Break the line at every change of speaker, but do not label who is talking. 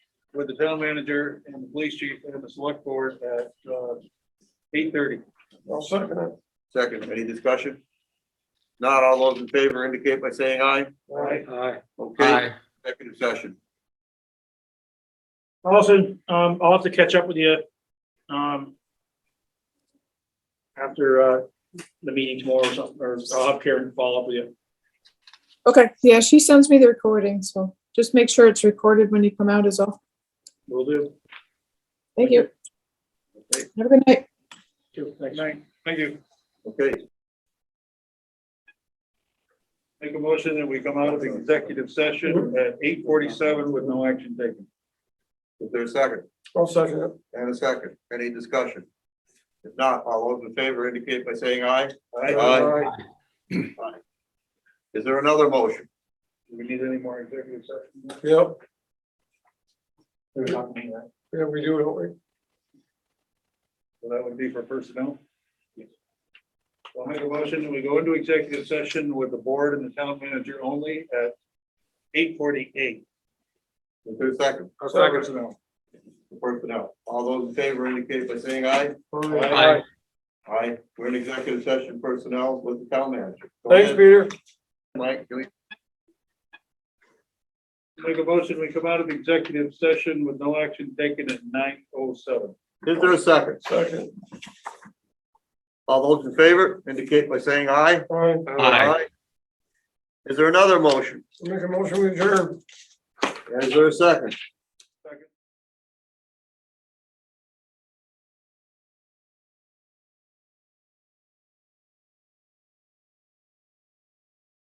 with the town manager and the police chief and the select board at uh, eight thirty.
I'll second it. Second, any discussion? Not all those in favor indicate by saying aye.
Aye.
Okay, executive session.
Also, um, I'll have to catch up with you, um, after, uh, the meeting tomorrow or something, or I'll have Karen follow up with you.
Okay, yeah, she sends me the recording, so just make sure it's recorded when you come out is all.
Will do.
Thank you.
Okay.
Have a good night.
Too. Thanks.
Thank you.
Okay,
Make a motion that we come out of the executive session at eight forty-seven with no action taken.
is there a second?
I'll second it.
And a second, any discussion? If not, all those in favor indicate by saying aye. Aye. Is there another motion?
Do we need any more executive session?
Yep,
There's not many, right?
yeah, we do, don't we?
So that would be for personnel? I'll make a motion that we go into executive session with the board and the town manager only at eight forty-eight.
Is there a second?
Personnel.
Personnel, all those in favor indicate by saying aye.
Aye.
Aye, we're in executive session personnel with the town manager. Go
Thanks,
ahead,
Peter.
Mike, can we
Make a motion, we come out of executive session with no action taken at nine oh seven.
Is there a second?
Second,
All those in favor indicate by saying aye.
all right,
Aye. Is there another motion?
make a motion, we adjourn.
Is there a second?